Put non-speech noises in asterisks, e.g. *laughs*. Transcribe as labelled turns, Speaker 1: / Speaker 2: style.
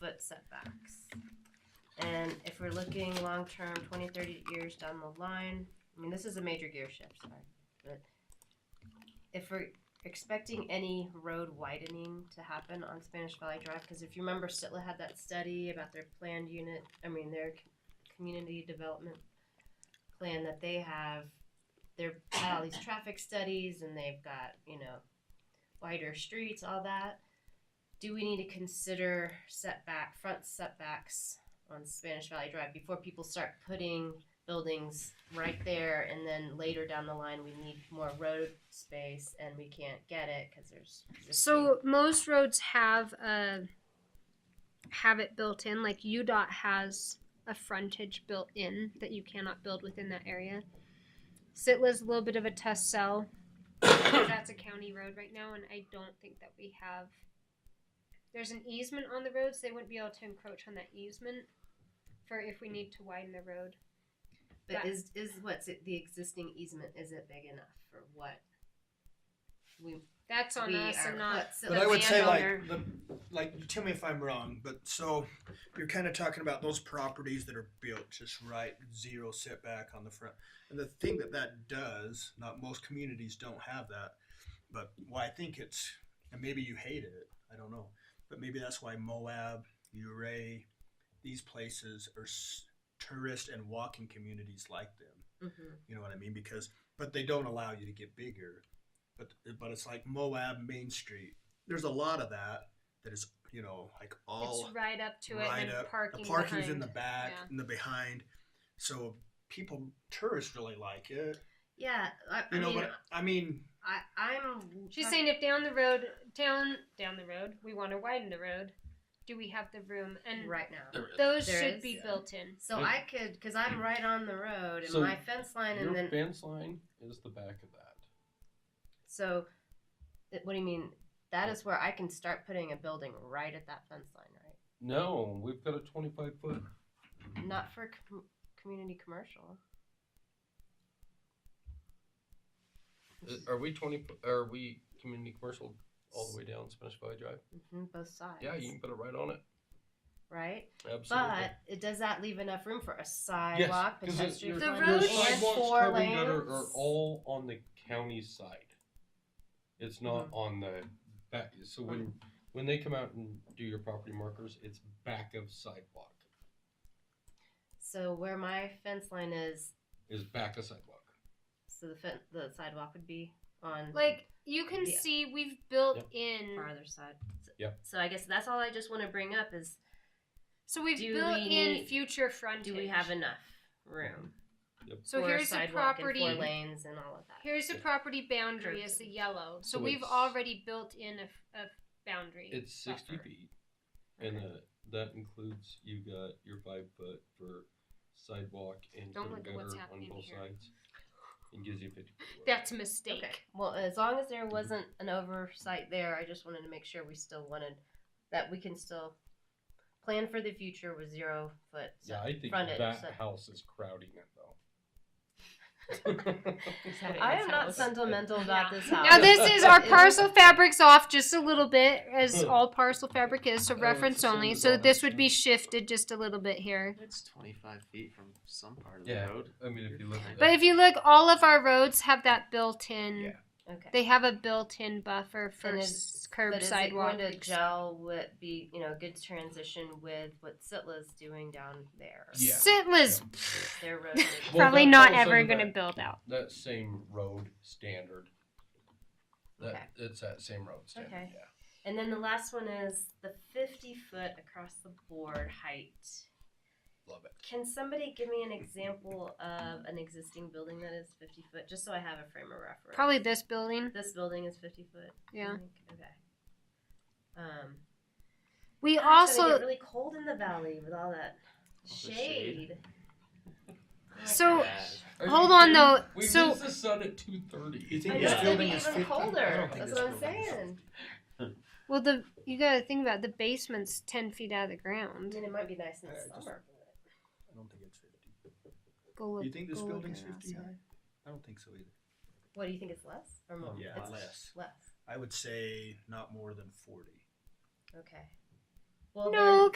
Speaker 1: foot setbacks. And if we're looking long term, 20, 30 years down the line, I mean, this is a major gear shift, sorry. But if we're expecting any road widening to happen on Spanish Valley Drive, because if you remember, Sitla had that study about their planned unit, I mean, their c- community development plan that they have. They've had all these traffic studies and they've got, you know, wider streets, all that. Do we need to consider setback, front setbacks on Spanish Valley Drive before people start putting buildings right there and then later down the line we need more road space and we can't get it because there's existing-
Speaker 2: So most roads have a have it built in. Like UDOT has a frontage built in that you cannot build within that area. Sitla's a little bit of a test cell. *coughs* That's a county road right now, and I don't think that we have. There's an easement on the road, so they wouldn't be able to encroach on that easement for if we need to widen the road.
Speaker 1: but is is what's it, the existing easement is it big enough for what we
Speaker 2: That's on
Speaker 1: we
Speaker 2: us
Speaker 1: are
Speaker 2: and not.
Speaker 1: what's
Speaker 3: But
Speaker 1: the
Speaker 3: I would say
Speaker 2: landowner.
Speaker 3: like the like you tell me if I'm wrong, but so you're kind of talking about those properties that are built just right, zero setback on the front. And the thing that that does, not most communities don't have that, but why I think it's and maybe you hated it, I don't know, but maybe that's why Moab, Uray, these places are s- tourist and walking communities like them.
Speaker 1: Mhm.
Speaker 3: You know what I mean? Because but they don't allow you to get bigger. But but it's like Moab Main Street. There's a lot of that that is you know like all
Speaker 2: it's right up to it
Speaker 3: right
Speaker 2: and
Speaker 3: up.
Speaker 2: parking.
Speaker 3: the parking's in
Speaker 2: behind.
Speaker 3: the back
Speaker 2: yeah.
Speaker 3: and the behind. So people tourists really like it.
Speaker 1: yeah i, I
Speaker 3: You know
Speaker 1: mean
Speaker 3: but I mean
Speaker 1: I, i'm
Speaker 2: She's saying if down the road, down down the road, we want to widen the road, do we have the room? And
Speaker 1: right now
Speaker 2: those
Speaker 1: There
Speaker 2: should
Speaker 1: is,
Speaker 2: be
Speaker 3: yeah.
Speaker 2: built in.
Speaker 1: so i could because i'm right on the road and
Speaker 4: So
Speaker 1: my fence line
Speaker 4: Your
Speaker 1: and then
Speaker 4: fence line is the back of that.
Speaker 1: so it- what do you mean that is where i can start putting a building right at that fence line right
Speaker 4: No, we've got a 25 foot.
Speaker 1: not for com- community commercial
Speaker 3: Uh,
Speaker 4: uh,
Speaker 3: er,
Speaker 4: Are we 20? fo- Are we community commercial all the way down Spanish Valley Drive?
Speaker 1: hmm both sides
Speaker 4: Yeah, you can put it right on it.
Speaker 1: right
Speaker 4: Absolutely.
Speaker 1: but it does that leave enough room for a sidewalk
Speaker 4: 'cause it-
Speaker 1: pedestrian
Speaker 4: your-
Speaker 2: The
Speaker 1: lane,
Speaker 4: your
Speaker 2: road-
Speaker 1: and
Speaker 4: sidewalks,
Speaker 1: four
Speaker 4: curb and gutter
Speaker 1: lanes
Speaker 4: Are all on the county side. It's not
Speaker 1: Mm-hmm.
Speaker 4: on the back. So when when they come out and do your property markers, it's back of sidewalk.
Speaker 1: so where my fence line is
Speaker 4: Is back of sidewalk.
Speaker 1: So the fen- the sidewalk would be on
Speaker 2: Like you can
Speaker 1: Yeah.
Speaker 2: see, we've built
Speaker 4: Yep.
Speaker 2: in.
Speaker 1: farther side. So,
Speaker 4: Yep.
Speaker 1: So I guess that's all I just want to bring up is
Speaker 2: So we've
Speaker 1: Do
Speaker 2: built
Speaker 1: we
Speaker 2: in
Speaker 1: need-
Speaker 2: future frontage.
Speaker 1: do we have enough room?
Speaker 2: So
Speaker 1: for
Speaker 2: here's the
Speaker 1: sidewalk and
Speaker 2: property.
Speaker 1: four lanes and all of that.
Speaker 2: Here's the property boundary is the
Speaker 1: Curtain.
Speaker 2: yellow. So,
Speaker 4: So
Speaker 2: we've
Speaker 4: it's-
Speaker 2: already built in a, f- a boundary.
Speaker 4: It's 60
Speaker 2: buffer.
Speaker 4: feet. And uh, that includes you got your five foot for sidewalk and
Speaker 2: Don't look
Speaker 4: curb
Speaker 2: at
Speaker 4: gutter
Speaker 2: what's
Speaker 4: on
Speaker 2: happening
Speaker 4: both
Speaker 2: here.
Speaker 4: sides. And gives you 50.
Speaker 2: That's a mistake.
Speaker 1: Okay. Well, as long as there wasn't an oversight there, I just wanted to make sure we still wanted that we can still plan for the future with zero foot.
Speaker 4: Yeah, I think
Speaker 1: frontage,
Speaker 4: that
Speaker 1: so-
Speaker 4: house is crowding it
Speaker 2: *laughs*
Speaker 4: though.
Speaker 1: I am not sentimental about
Speaker 2: Yeah.
Speaker 1: this house.
Speaker 2: Now this is our
Speaker 1: It *laughs*
Speaker 2: parcel fabrics off just a little bit, as
Speaker 4: Huh.
Speaker 2: all parcel fabric is, so
Speaker 4: Hmm. Oh, it's
Speaker 2: reference
Speaker 4: the same
Speaker 2: only.
Speaker 4: as
Speaker 2: So
Speaker 4: all
Speaker 2: this
Speaker 4: that
Speaker 2: would be
Speaker 4: stuff.
Speaker 2: shifted just a little bit here.
Speaker 5: It's 25 feet from some part of
Speaker 4: Yeah.
Speaker 5: the road.
Speaker 4: I mean, if you look at
Speaker 2: But if you look, all of our roads have that built in.
Speaker 3: Yeah.
Speaker 1: Okay.
Speaker 2: They have a built-in buffer for
Speaker 1: And
Speaker 2: s- curb
Speaker 1: but is
Speaker 2: sidewalk.
Speaker 1: it going to gel with be you know a good transition with what Sitla's doing down there?
Speaker 4: Yeah.
Speaker 2: Sitla's
Speaker 1: Their
Speaker 2: *laughs*
Speaker 1: road.
Speaker 4: Well,
Speaker 2: probably
Speaker 4: that's
Speaker 2: not
Speaker 4: also
Speaker 2: ever
Speaker 4: that-
Speaker 2: going to build out.
Speaker 4: that same road standard. That,
Speaker 1: Okay.
Speaker 4: It's that same road standard.
Speaker 1: Okay.
Speaker 4: Yeah.
Speaker 1: And then the last one is the 50 foot across the board height.
Speaker 4: Love it.
Speaker 1: Can somebody give me an example of an existing building that is 50 foot, just so I have a frame of reference?
Speaker 2: Probably this building.
Speaker 1: This building is 50 foot. you
Speaker 2: Yeah.
Speaker 1: think? Okay. Um,
Speaker 2: We
Speaker 1: it's gonna
Speaker 2: also
Speaker 1: get really cold in the valley with all that
Speaker 5: the
Speaker 1: shade. Oh my
Speaker 2: So-
Speaker 1: gosh.
Speaker 4: Are
Speaker 2: hold
Speaker 4: you
Speaker 2: on
Speaker 4: kidding?
Speaker 2: though.
Speaker 4: We
Speaker 2: So
Speaker 4: missed the sun at 2:30.
Speaker 3: You think
Speaker 1: I
Speaker 3: this
Speaker 1: know it's gonna be
Speaker 3: building
Speaker 1: even
Speaker 3: is 50? I
Speaker 1: colder.
Speaker 3: don't think
Speaker 1: That's
Speaker 3: this
Speaker 1: what I'm
Speaker 3: building is
Speaker 1: saying.
Speaker 2: well, the you got to think about the basement's ten feet out of the
Speaker 1: I
Speaker 2: ground.
Speaker 1: mean, it might be nice in the
Speaker 3: Yeah, just-
Speaker 1: summer.
Speaker 3: I don't think it's 50.
Speaker 2: Go look.
Speaker 3: you think this
Speaker 2: go look
Speaker 3: building's
Speaker 2: at
Speaker 3: 50
Speaker 2: outside.
Speaker 3: high? I don't think so either.
Speaker 1: What do you think? It's less or more?
Speaker 3: Yeah,
Speaker 1: It's
Speaker 3: less.
Speaker 1: Less.
Speaker 3: I would say not more than 40.
Speaker 1: Okay. Well,
Speaker 2: No,